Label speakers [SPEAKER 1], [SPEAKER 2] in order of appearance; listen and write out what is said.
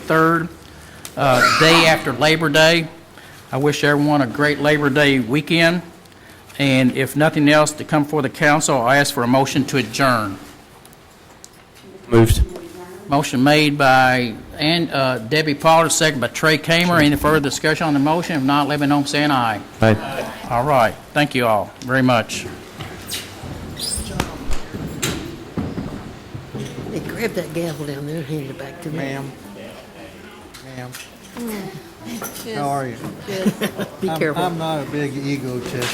[SPEAKER 1] 23rd, uh, day after Labor Day. I wish everyone a great Labor Day weekend, and if nothing else, to come for the council, I ask for a motion to adjourn.
[SPEAKER 2] Moved.
[SPEAKER 1] Motion made by Ann- uh, Debbie Pollard, second by Trey Kamer. Any further discussion on the motion? If not, let me know, by saying aye.
[SPEAKER 2] Aye.
[SPEAKER 1] All right, thank you all very much.
[SPEAKER 3] They grabbed that gavel down there and handed it back to me.
[SPEAKER 4] Ma'am. Ma'am. How are you?
[SPEAKER 3] Be
[SPEAKER 4] I'm-
[SPEAKER 3] careful.
[SPEAKER 4] I'm not a big egotist.